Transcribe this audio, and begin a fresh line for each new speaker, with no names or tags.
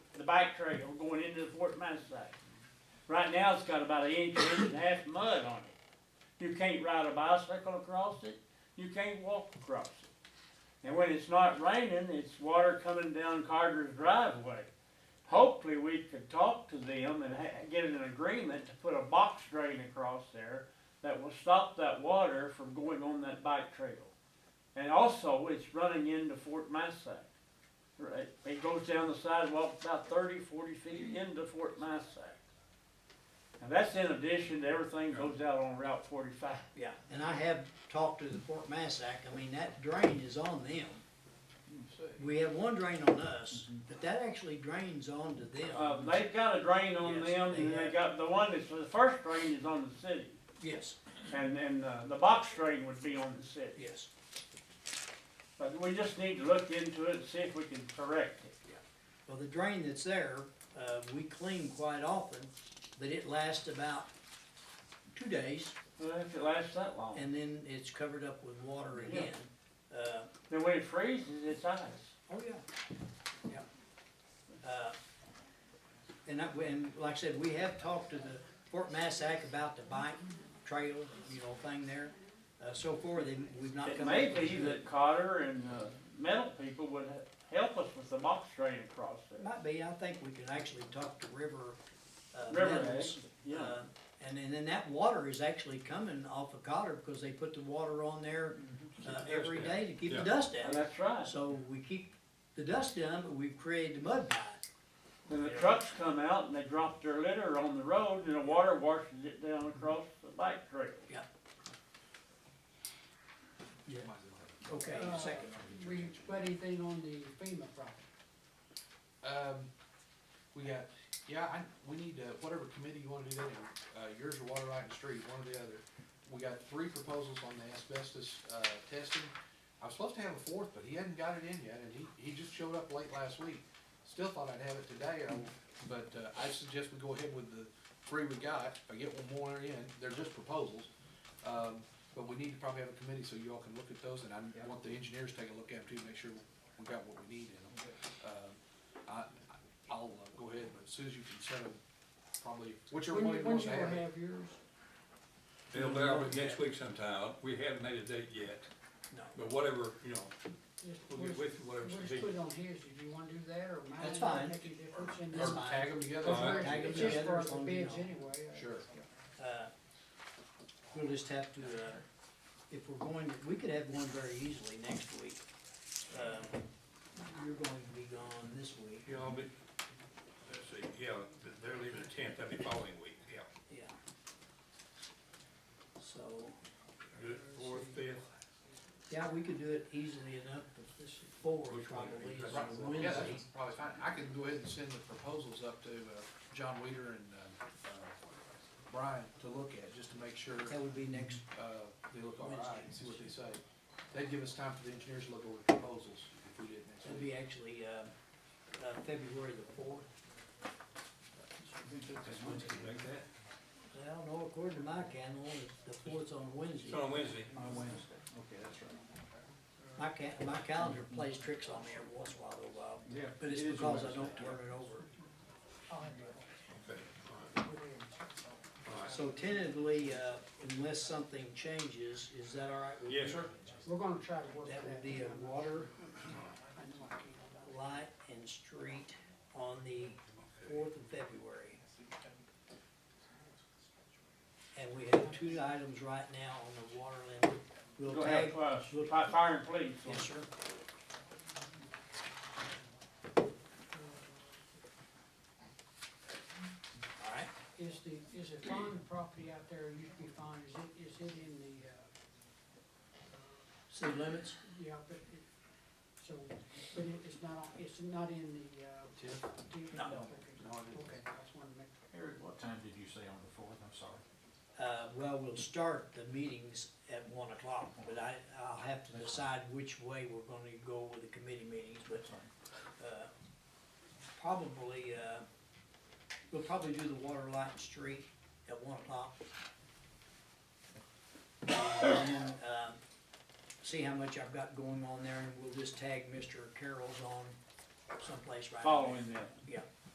bike trail going into the Fort Mine site. Right now, it's got about an inch, inch and a half mud on it. You can't ride a bicycle across it, you can't walk across it. And when it's not raining, it's water coming down Carter's driveway. Hopefully, we could talk to them and ha- get an agreement to put a box drain across there that will stop that water from going on that bike trail. And also, it's running into Fort Massac. Right, it goes down the sidewalk about 30, 40 feet into Fort Massac. And that's in addition to everything that goes out on Route forty-five.
Yeah, and I have talked to the Fort Massac, I mean, that drain is on them. We have one drain on us, but that actually drains onto
Uh,
them.
they've got a drain on
Yes,
them,
they
and they
have.
got, the one that's, the first drain is on the city,
Yes,
and, and, uh, the box drain would be on the city.
yes.
But we just need to look into it and see if we can correct it.
Well, the drain that's there, uh, we clean quite often, but it lasts about two days,
Well, if it lasts that long,
and then it's covered up with water again. Uh,
then when it freezes, it's ice.
Oh, yeah, yeah. Uh, And I, and like I said, we have talked to the Fort Massac about the bike trail, you know, thing there. Uh, so far, they, we've not
It
come.
may
up with
be
a-
that Cotter and, uh, metal people would he- help us with the box drain across there.
Might be, I think we could actually talk to River, uh,
River
Metals.
Edge, yeah.
Uh, And then, then that water is actually coming off of Cotter because they put the water on there, uh, every day to keep the
Yeah.
dust
And
out.
Mm-hmm. that's right.
So we keep the dust down, but we've created the mud pie.
Then the trucks come out and they drop their litter on the road and the water washes it down across the bike trail.
Okay,
Uh,
second.
We put anything on the FEMA property?
Um, we got, yeah, I, we need to, whatever committee you wanna do that in, uh, yours or water right and street, one or the other. We got three proposals on the asbestos, uh, testing. I was supposed to have a fourth, but he hadn't got it in yet, and he, he just showed up late last week. Still thought I'd have it today, I- but, uh, I suggest we go ahead with the three we got, if I get one more in, they're just proposals. Um, but we need to probably have a committee so you all can look at those, and I want the engineers to take a look at them too, make sure we got what we need in them. Um, I, I'll uh, go ahead, but as soon as you can set them, probably, whichever
When,
one you
when
want
you
to
gonna
have. it.
have yours?
It'll be out next week sometime. We haven't made a date yet,
No.
but whatever, you know,
Just- we'll
we'll get
just-
with you, whatever
we'll
it's
just put it on his, if you wanna do that, or mine.
That's fine.
Make a difference in
Or
this.
fine.
tag them together.
All right.
Tag 'em
It's just
together
for
as
the
long as you
bids
know.
anyway. uh,
Sure.
Uh, We'll just have to, uh, if we're going, we could have one very easily next week. Um, You're going to be gone this week,
you know, but, let's see, yeah, they're leaving the tenth, that'd be following week, yeah.
yeah. So,
Good, Fourth, fifth,
yeah, we could do it easily enough, but this is four
Which one?
probably, is
Right.
on
Yeah,
Wednesday.
that's probably fine. I can go ahead and send the proposals up to, uh, John Weider and, uh, uh, Brian to look at, just to make sure,
That would be next,
uh, they look all right,
Wednesday.
and see what they say. That'd give us time for the engineers to look over the proposals if we did next
that'd
week.
be actually, uh, uh, February the fourth.
that's Wednesday, make that.
I don't know, according to my calendar, the fourth's on Wednesday.
It's on Wednesday.
On Wednesday, okay, that's right.
My ca- my calendar plays tricks on me every once in a while, though, Bob.
Yeah,
But it's
it is a
because I
Wednesday.
don't turn it over.
I'll have to
Okay,
put it in.
all right.
So tentatively, uh, unless something changes, is that all right? with you?
Yes, sir.
We're gonna try to work that.
That would be a
out.
water,
I know I can't.
light, and street on the fourth of February. And we have two items right now on the water limit.
Go
We'll
ahead,
tag,
uh, fi- fire and police.
yes, sir.
Uh,
All right.
Is the, is the fine property out there, used to be fine, is it, is it in the, uh,
City limits?
yeah, but it, so, but it is not, it's not in the, uh.
Tiff?
deed?
No.
No, I didn't.
Okay, I just wanted to make.
Eric, what time did you say on the fourth? I'm sorry.
Uh, well, we'll start the meetings at one o'clock, but I, I'll have to decide which way we're gonna go with the committee meetings, but, uh, probably, uh, we'll probably do the water, light, and street at one o'clock. And then, um, see how much I've got going on there, and we'll just tag Mr. Carroll's on someplace right away.
Following that.
Yeah,